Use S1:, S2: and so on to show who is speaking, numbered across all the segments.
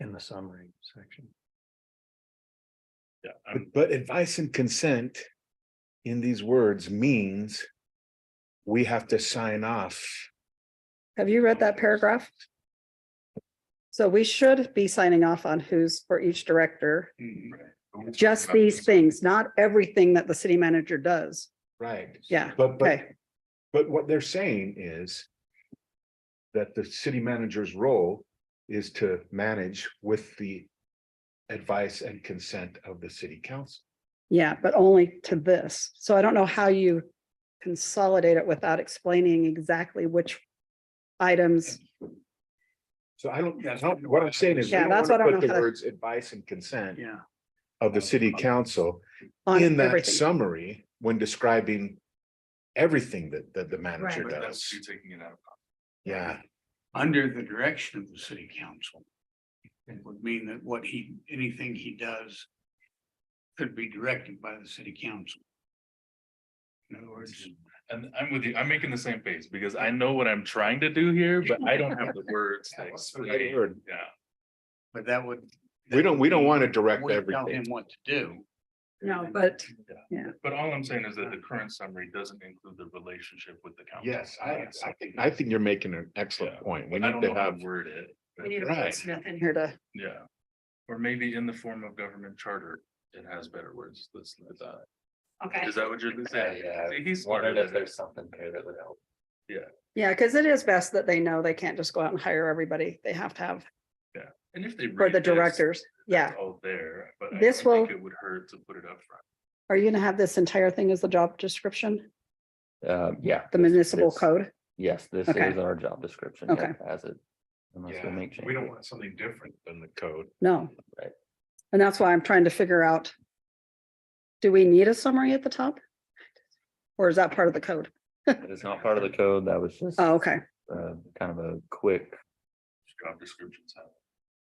S1: in the summary section.
S2: Yeah, I'm,
S3: But- But advice and consent in these words means we have to sign off.
S4: Have you read that paragraph? So we should be signing off on who's for each director,
S3: Mm,
S4: just these things, not everything that the city manager does.
S3: Right.
S4: Yeah,
S3: But, but,
S4: okay,
S3: but what they're saying is that the city manager's role is to manage with the advice and consent of the city council.
S4: yeah, but only to this. So I don't know how you consolidate it without explaining exactly which items.
S3: So I don't, I don't- what I'm saying is. we
S4: Yeah,
S3: don't
S4: that's
S3: wanna
S4: what I don't
S3: put
S4: know
S3: The
S4: how to-
S3: words advice and consent
S1: Yeah.
S3: of the city council
S4: on
S3: in that
S4: everything.
S3: summary when describing everything that, that the manager
S2: but that's
S3: does.
S2: you taking it out.
S3: Yeah,
S1: Under the direction of the city council. It would mean that what he, anything he does. Could be directed by the city council. In other words,
S2: And I'm with you, I'm making the same face because I know what I'm trying to do here, but I don't have the words. to
S3: Yeah, what's the right
S2: explain.
S3: word?
S2: Yeah,
S1: but that would.
S3: we don't, we don't want to direct
S1: We tell him
S3: everything.
S1: what to do.
S4: No, but
S2: but all I'm saying is that the current summary doesn't include the relationship with the council.
S3: Yes, I, I think, I think you're making an excellent
S2: Yeah.
S3: point. We
S2: I
S3: need
S2: don't know
S3: to
S2: how
S3: have,
S2: to word it.
S4: we need to
S2: but-
S4: put
S3: Right.
S4: Smith in here to,
S2: Yeah, or maybe in the form of government charter, it has better words, let's, let that-
S4: okay,
S2: is that what you're saying?
S5: Yeah,
S2: See, He's smarter
S5: Wondered if
S2: than us.
S5: there's something there that would help.
S4: yeah, because it is best that they know they can't just go out and hire everybody. They have to have
S2: And if they.
S4: for
S2: read
S4: the
S2: this,
S4: directors. Yeah,
S2: it's All there, but I
S4: This
S2: don't think
S4: will-
S2: It would hurt to put it up front.
S4: are you gonna have this entire thing as the job description,
S5: Um, yeah,
S4: the municipal
S5: This-
S4: code?
S5: yes, this
S4: Okay.
S5: is our job description.
S4: Okay.
S5: yeah, As it. Unless
S3: Yeah,
S5: we make
S3: we
S5: changes.
S3: don't want something different than the code.
S4: No.
S5: Right.
S4: And that's why I'm trying to figure out. Do we need a summary at the top? Or is that part of the code?
S5: That is not part of the code. That was just.
S4: Oh, okay,
S5: Uh, kind of a quick
S2: Job descriptions have.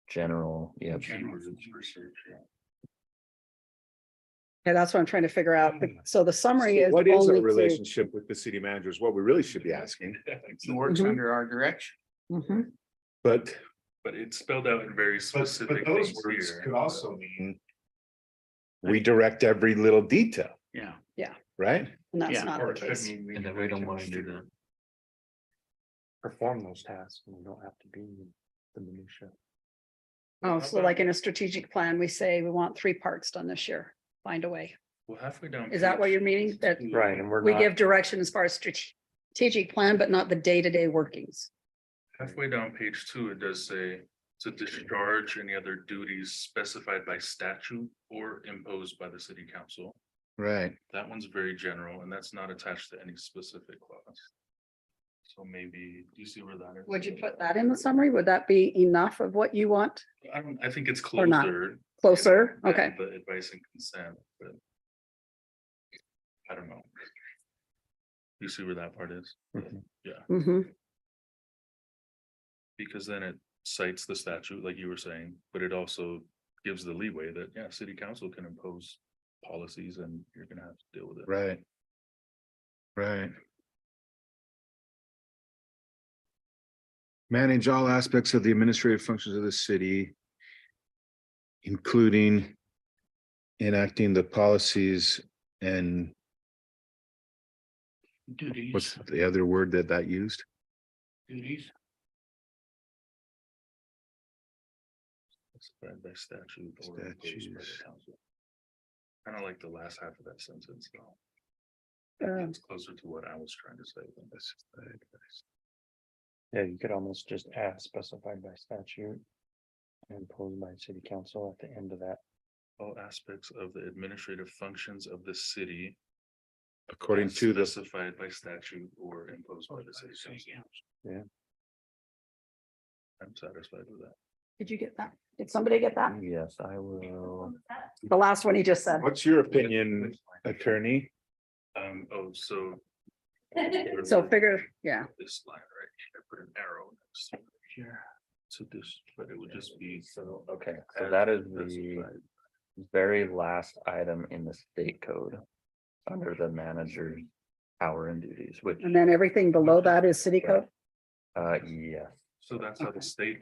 S5: general, yeah.
S2: keywords for search, yeah.
S4: yeah, that's what I'm trying to figure out. Be- So the summary is
S3: What is our
S4: only to.
S3: relationship with the city manager is what we really should be asking,
S1: He works
S4: Mhm.
S1: under our direction.
S4: Mhm.
S3: but.
S2: But it's spelled out in very specific things here. uh,
S3: mean. We direct every little detail,
S1: Yeah.
S3: right?
S4: And that's
S1: Yeah,
S4: not
S2: Or
S4: the
S2: it could
S4: case.
S2: mean
S5: And that we don't wanna do
S2: reconsider.
S5: that.
S1: Perform those tasks and we don't have to be the minutia.
S4: Oh, so like in a strategic plan, we say we want three parks done this year. Find a way.
S2: Well, halfway down.
S4: Is that what you're meaning? That
S1: Right, and we're
S4: we
S1: not,
S4: give direction as far as strate- strategic plan, but not the day-to-day workings.
S2: Halfway down page two, it does say to discharge any other duties specified by statute or imposed by the city council.
S3: Right.
S2: That one's very general and that's not attached to any specific clause. So maybe, do you see where that is?
S4: Would you put that in the summary? Would that be enough of what you want?
S2: I don't, I think it's
S4: Or not.
S2: closer.
S4: Closer?
S2: than
S4: Okay,
S2: The advice and consent, but. I don't know. You see where that part is?
S4: mm-hmm.
S2: Because then it cites the statute, like you were saying, but it also gives the leeway that, yeah, city council can impose policies and you're gonna have to deal with it.
S3: Right. Right. Manage all aspects of the administrative functions of the city. Including enacting the policies and
S1: duties,
S3: what's the other word that that used?
S1: duties,
S2: Specified by statute or imposed by
S3: Statutes.
S2: the council. Kind of like the last half of that sentence, though.
S4: Um,
S2: It's closer to what I was trying to say than this.
S1: yeah, you could almost just add specified by statute. and Imposed by city council at the end of that.
S2: All aspects of the administrative functions of the city.
S3: According
S2: as
S3: to the
S2: Specified by statute or imposed by the city council. I'm satisfied with that.
S4: Did you get that? Did somebody get that?
S5: Yes, I will.
S4: The last one he just said.
S3: What's your opinion, attorney?
S2: Um, oh, so.
S4: So figure, yeah,
S2: This line right here, I put an arrow next to it here. So this, but it would just be.
S5: So, okay, so
S2: as
S5: that is the
S2: specified.
S5: very last item in the state code. Under the manager's power and duties, which,
S4: and then everything below that is city code?
S5: uh, yes.
S2: So that's how the state